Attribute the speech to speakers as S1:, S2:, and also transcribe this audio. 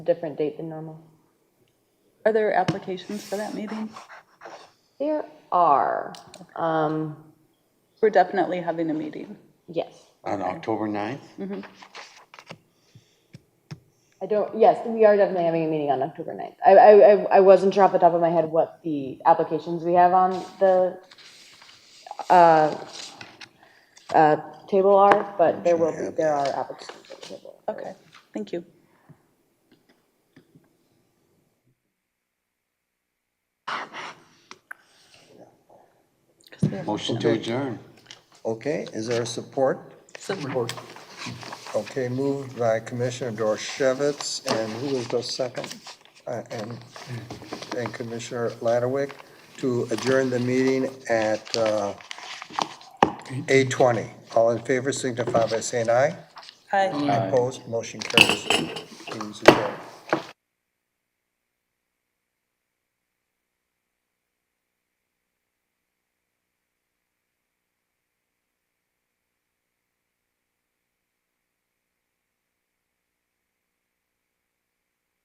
S1: different date than normal?
S2: Are there applications for that meeting?
S1: There are, um,
S2: We're definitely having a meeting.
S1: yes.
S3: On October 9th?
S1: I don't, yes, we are definitely having a meeting on October 9th. I, I, I- I wasn't sure off the top of my head what the applications we have on the, uh, uh, table are, but there will be, there are applications on the table.
S2: Okay, thank you.
S3: Motion to adjourn.
S4: Okay, is there a support?
S2: Support.
S4: Okay, moved by Commissioner Dorchevitz, and who was the second? Uh, And, and Commissioner Lattawick to adjourn the meeting at uh, 8:20. All in favor signify by saying aye.
S2: Hi.
S4: Opposed, motion carries. Meeting's adjourned.